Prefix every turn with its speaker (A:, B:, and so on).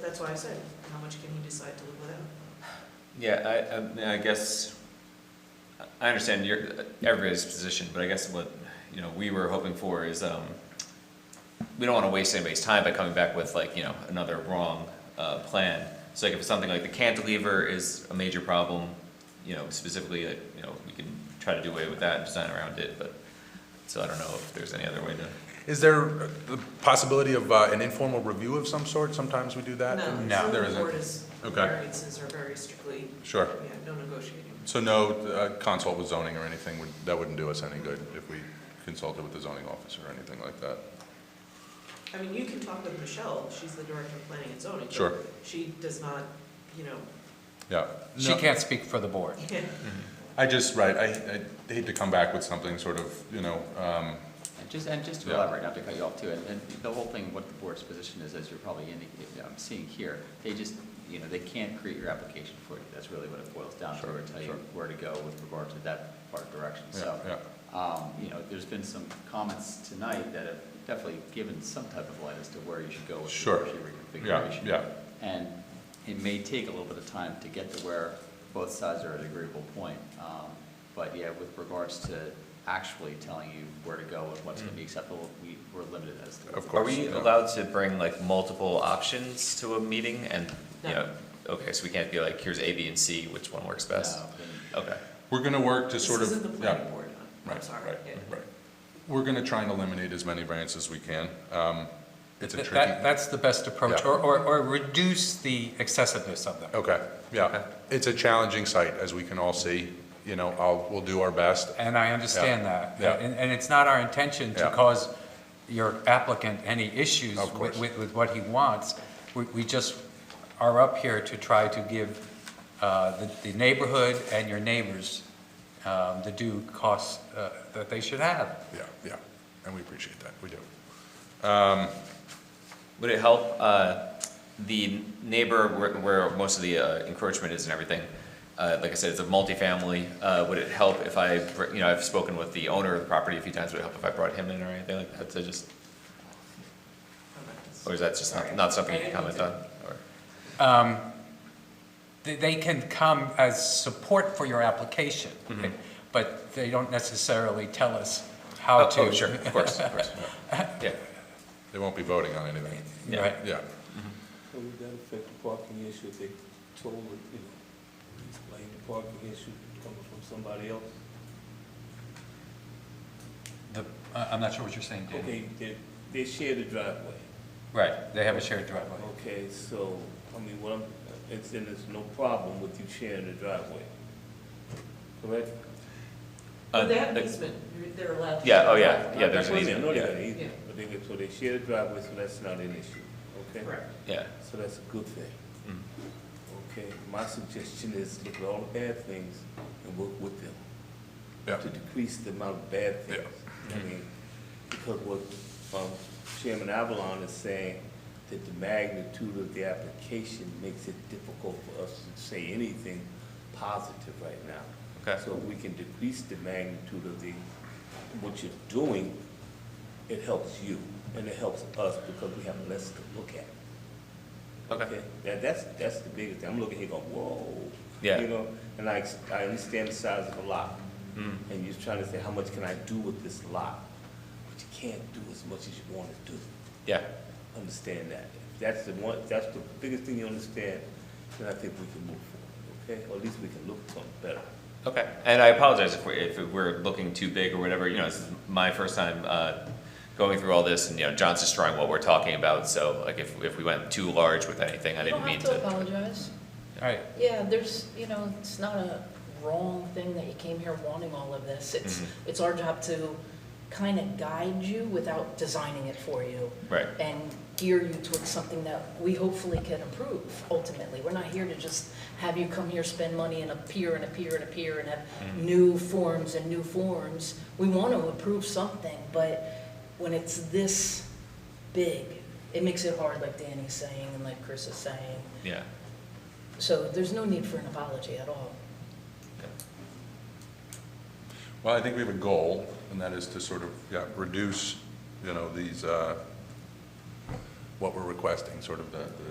A: that's why I said, how much can he decide to live without?
B: Yeah, I, I mean, I guess, I understand your, everybody's position, but I guess what, you know, we were hoping for is, um, we don't wanna waste anybody's time by coming back with like, you know, another wrong, uh, plan. So like if it's something like the cantilever is a major problem, you know, specifically, like, you know, we can try to do away with that and design around it, but, so I don't know if there's any other way to.
C: Is there uh, the possibility of uh, an informal review of some sort? Sometimes we do that?
A: zoning
C: Uh, There
A: board
C: isn't.
A: is,
C: Okay.
A: variances are very strictly,
C: Sure.
A: yeah, no negotiating.
C: So no uh, consult with zoning or anything, would- that wouldn't do us any good if we consulted with the zoning officer or anything like that?
A: I mean, you can talk with Michelle, she's the director of planning and zoning. but
C: Sure.
A: She does not, you know,
C: Yeah.
D: She can't speak for the board.
A: can't
C: I just, right, I I hate to come back with something sort of, you know, um,
E: And just, and just to
C: Yeah.
E: elaborate, not to cut you off too, and, and the whole thing, what the board's position is, as you're probably indicating, I'm seeing here, they just, you know, they can't create your application for you, that's really what it boils down to,
C: Sure,
E: or tell you
C: sure.
E: where to go with regard to that part of direction,
C: yeah,
E: so.
C: yeah.
E: Um, you know, there's been some comments tonight that have definitely given some type of light as to where you should go with the
C: Sure.
E: energy
C: Yeah,
E: reconfiguration.
C: yeah,
E: And it may take a little bit of time to get to where both sides are at an agreeable point. Um, But yeah, with regards to actually telling you where to go and what's gonna be acceptable, we, we're limited as to.
C: Mm. Of
B: Are
C: course.
B: we
C: yeah.
B: allowed to bring like multiple options to a meeting and, you
A: No.
B: know, okay, so we can't be like, here's A, B, and C, which one works best?
E: Uh, and-
B: Okay.
C: We're going to work to
A: This
C: sort of.
A: isn't the
C: yeah.
A: planning board, I'm- I'm
C: Right,
A: sorry.
C: right,
A: yeah.
C: right. We're going to try and eliminate as many variances as we can. Um, It's a
D: That-
C: tricky.
D: That's the best approach,
C: Yeah.
D: or, or, or reduce the excessiveness of them.
C: Okay, yeah. It's a challenging site, as we can all see. You know, I'll, we'll do our best.
D: And I understand that.
C: Yeah.
D: And, and it's not our intention to
C: Yeah.
D: cause your applicant any issues
C: Of
D: with,
C: course.
D: with with what he wants. We, we just are up here to try to give, uh, the, the neighborhood and your neighbors, um, the due costs, uh, that they should have.
C: Yeah, yeah, and we appreciate that, we do.
B: Would it help, uh, the neighbor where, where most of the uh, encroachment is and everything? Uh, like I said, it's a multifamily, uh, would it help if I, br- you know, I've spoken with the owner of the property a few times, would it help if I brought him in or anything like that to just,
A: Okay.
B: or is that just not, not something you can comment on? Or-
D: Um, they, they can come as support for your application,
C: Mm-hmm.
D: but they don't necessarily tell us how
B: Oh,
D: to.
B: oh, sure, of course, of course, yeah.
C: They won't be voting on anything,
B: Yeah.
D: Right.
C: yeah.
F: How would that affect the parking issue if they told, it, you know, explain the parking issue coming from somebody else?
D: The, I- I'm not sure what you're saying, Dan.
F: Okay, they, they share the driveway,
D: Right, they have a shared driveway.
F: okay, so, I mean, what I'm, it's, then there's no problem with you sharing the driveway, correct?
B: Uh,
A: But they have an
B: like-
A: easement, they're allowed to.
B: Yeah, oh, yeah, yeah, there's
F: That's
B: an
F: what I mean, I know
B: easement,
F: they
B: yeah,
F: got an
A: Yeah.
F: easement, but they, so they share the driveway, so that's not an issue, okay?
A: Correct.
B: yeah.
F: So that's a good thing.
B: Mm.
F: Okay, my suggestion is look at all the bad things and work with them.
C: Yeah.
F: To decrease the amount of bad things. I mean, because what, um, Chairman Avalon is saying, that the magnitude of the application makes it difficult for us to say anything positive right now.
B: Okay.
F: So if we can decrease the magnitude of the, what you're doing, it helps you and it helps us because we have less to look at.
B: Okay.
F: That, that's, that's the biggest thing. I'm looking here going, whoa.
B: Yeah.
F: You know, and I, ex- I understand the size of the lot.
B: Mm.
F: And you're trying to say, how much can I do with this lot? But you can't do as much as you want to do.
B: Yeah,
F: Understand that. If that's the one, if that's the biggest thing you understand, then I think we can move forward, okay? Or at least we can look something better.
B: okay. And I apologize if we're, if we're looking too big or whatever, you know, this is my first time, uh, going through all this and, you know, John's destroying what we're talking about, so like if, if we went too large with anything, I
G: You
B: didn't mean
G: don't have to
B: to.
G: apologize.
D: All right,
G: Yeah, there's, you know, it's not a wrong thing that you came here wanting all of this. It's,
B: Mhm.
G: it's our job to kind of guide you without designing it for you
B: Right,
G: and gear you towards something that we hopefully can improve ultimately. We're not here to just have you come here, spend money and appear and appear and appear and have
B: Mm-hmm.
G: new forms and new forms. We want to improve something, but when it's this big, it makes it hard, like Danny's saying and like Chris is saying.
B: yeah.
G: So there's no need for an apology at all.
C: Well, I think we have a goal, and that is to sort of, yeah, reduce, you know, these, uh, what we're requesting, sort of the, the